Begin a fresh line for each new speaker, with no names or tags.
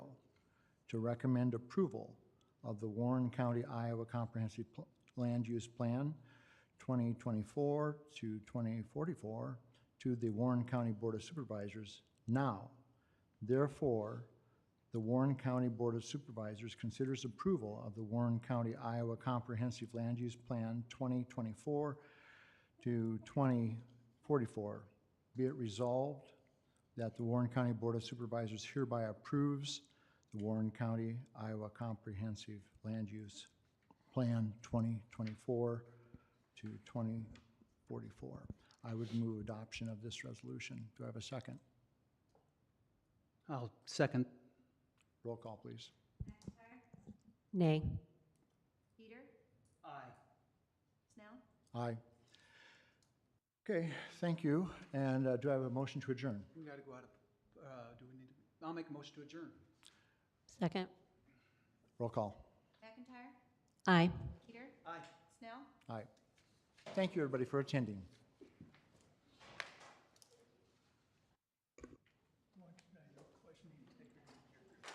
to recommend approval of the Warren County, Iowa Comprehensive Pl- Land Use Plan 2024 to 2044 to the Warren County Board of Supervisors now. Therefore, the Warren County Board of Supervisors considers approval of the Warren County, Iowa Comprehensive Land Use Plan 2024 to 2044. Be it resolved that the Warren County Board of Supervisors hereby approves the Warren County, Iowa Comprehensive Land Use Plan 2024 to 2044. I would move adoption of this resolution. Do I have a second?
I'll second.
Roll call, please.
Nay.
Peter?
Aye.
Snell?
Aye. Okay, thank you. And uh, do I have a motion to adjourn?
We gotta go out of, uh, do we need to, I'll make a motion to adjourn.
Second.
Roll call.
McIntyre?
Aye.
Peter?
Aye.
Snell?
Aye. Thank you, everybody, for attending.